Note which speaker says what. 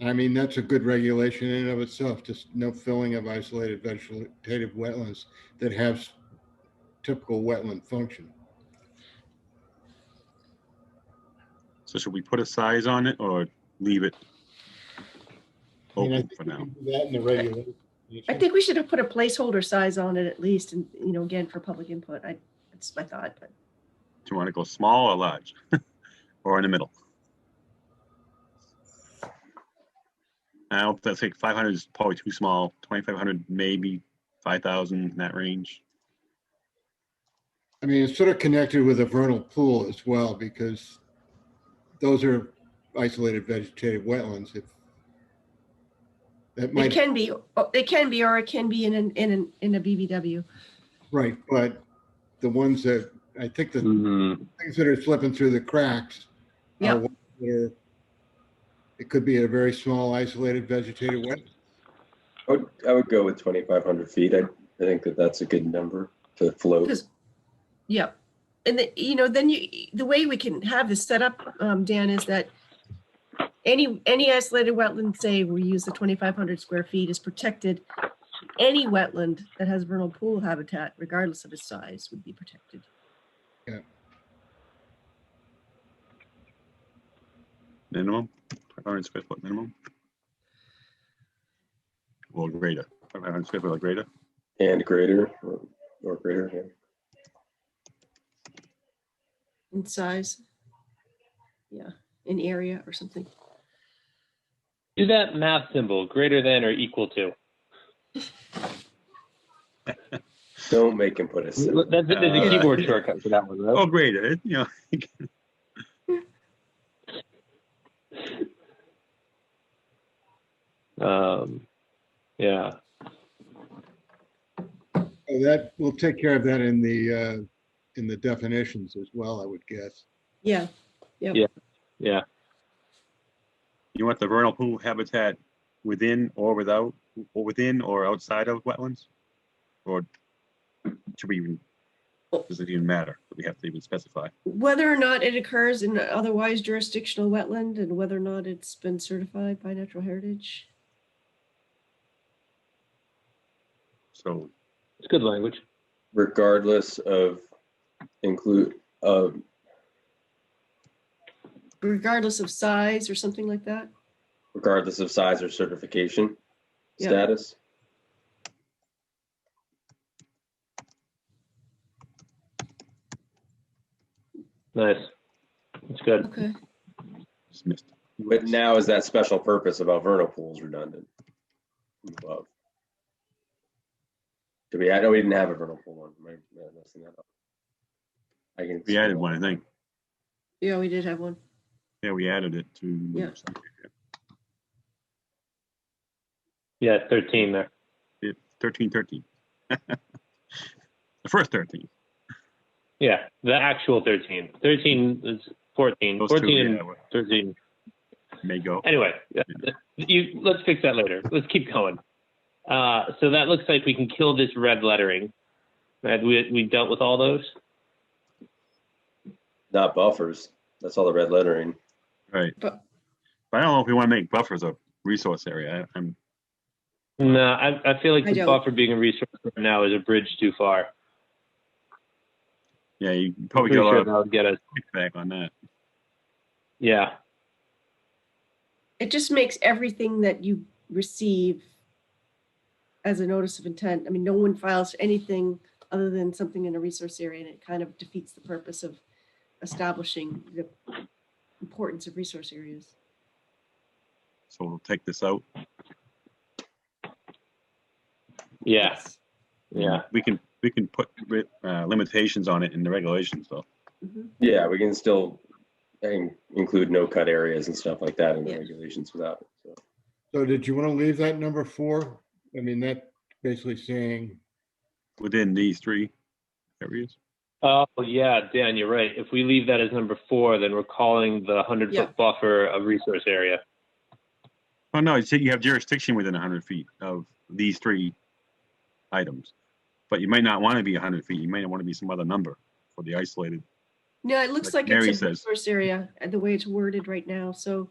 Speaker 1: I mean, that's a good regulation in and of itself, just no filling of isolated vegetative wetlands that have typical wetland function.
Speaker 2: So should we put a size on it or leave it
Speaker 1: I mean, I
Speaker 2: open
Speaker 1: think
Speaker 2: for
Speaker 1: we
Speaker 2: now?
Speaker 1: can do That in the regulation.
Speaker 3: I think we should have put a placeholder size on it at least, and, you know, again, for public input. I, that's my thought, but
Speaker 2: Do you want to go small or large? Or in the middle? I don't, I think five hundred is probably too small, twenty-five hundred, maybe five thousand in that range.
Speaker 1: I mean, it's sort of connected with a vernal pool as well, because those are isolated vegetative wetlands. If That
Speaker 3: it
Speaker 1: might,
Speaker 3: can be, it can be, or it can be in an, in an, in a BBW.
Speaker 1: right, but the ones that, I think the things that are slipping through the cracks. are
Speaker 3: Yeah.
Speaker 1: ones that are- It could be a very small isolated vegetated wetland.
Speaker 4: I would, I would go with 2,500 feet. I, I think that that's a good number to float.
Speaker 3: Because, yeah, and the, you know, then you, the way we can have this set up, um, Dan, is that any, any isolated wetland, say we use the twenty-five hundred square feet is protected. Any wetland that has vernal pool habitat, regardless of its size, would be protected.
Speaker 2: Minimum, five hundred square foot minimum. Or greater, five hundred square foot or greater.
Speaker 4: And greater, or- or greater, yeah.
Speaker 3: In size. Yeah, in area or something.
Speaker 5: Do that math symbol greater than or equal to.
Speaker 4: Don't make him put a
Speaker 5: That's,
Speaker 4: sim-
Speaker 5: there's
Speaker 2: Uh,
Speaker 5: a keyboard shortcut for that one, right?
Speaker 2: Oh, greater, it- you know. Oh.
Speaker 5: Um, yeah.
Speaker 1: So That, we'll take care of that in the, uh, in the definitions as well, I would guess.
Speaker 3: Yeah,
Speaker 2: You want the vernal pool habitat within or without, or within or outside of wetlands? Or should we even, does it even matter? Do we have to even specify?
Speaker 3: whether or not it occurs in a otherwise jurisdictional wetland and whether or not it's been certified by natural heritage.
Speaker 2: So,
Speaker 5: It's good language.
Speaker 4: regardless of include, of,
Speaker 3: regardless of size or something like that?
Speaker 4: regardless of size or certification
Speaker 3: Yeah.
Speaker 4: status.
Speaker 5: Nice. It's good.
Speaker 3: Okay.
Speaker 2: just missed.
Speaker 4: But now is that special purpose about vernal pools redundant? Above. Do we, I know we didn't have a vernal pool one. Am I- am I messing that up? I can.
Speaker 2: We added one, I think.
Speaker 3: Yeah, we did have one.
Speaker 2: Yeah, we added it to.
Speaker 3: Yeah.
Speaker 5: Yeah, 13 there.
Speaker 2: Thirteen, thirteen. The first thirteen.
Speaker 5: Yeah, the actual 13. 13 is 14.
Speaker 2: Those
Speaker 5: 14
Speaker 2: two,
Speaker 5: and
Speaker 2: yeah, were-
Speaker 5: 13.
Speaker 2: may go.
Speaker 5: Anyway, yeah, you, let's fix that later. Let's keep going. Uh, so that looks like we can kill this red lettering. Right, we, we dealt with all those.
Speaker 4: Not buffers. That's all the red lettering.
Speaker 2: Right. But
Speaker 3: But-
Speaker 2: I don't know if we want to make buffers a resource area. I- I'm,
Speaker 5: No, I, I feel like
Speaker 3: I
Speaker 5: the
Speaker 3: don't.
Speaker 5: buffer being a resource right now is a bridge too far.
Speaker 2: yeah, you
Speaker 5: I'm
Speaker 2: probably
Speaker 5: pretty
Speaker 2: get Oh, a lot
Speaker 5: sure
Speaker 2: of
Speaker 5: that would get us.
Speaker 2: feedback on that.
Speaker 5: Yeah,
Speaker 3: It just makes everything that you receive as a notice of intent. I mean, no one files anything other than something in a resource area and it kind of defeats the purpose of establishing the importance of resource areas.
Speaker 2: So we'll take this out.
Speaker 5: yeah, yeah.
Speaker 2: We can, we can put ri- uh, limitations on it in the regulations though.
Speaker 3: Mhm.
Speaker 4: Yeah, we can still in- include no cut areas and stuff like that in the
Speaker 3: Yeah.
Speaker 4: regulations without it. So
Speaker 1: So did you want to leave that number four? I mean, that basically saying,
Speaker 2: within these three areas.
Speaker 5: Oh, yeah, Dan, you're right. If we leave that as number four, then we're calling the 100
Speaker 3: Yeah.
Speaker 5: foot buffer a resource area.
Speaker 2: Oh, no, you said you have jurisdiction within hundred feet of these three items. But you might not want to be hundred feet. You might want to be some other number for the isolated.
Speaker 3: No, it looks
Speaker 2: Like
Speaker 3: like
Speaker 2: Mary
Speaker 3: it's a uh,
Speaker 2: says.
Speaker 3: resource area and the way it's worded right now. So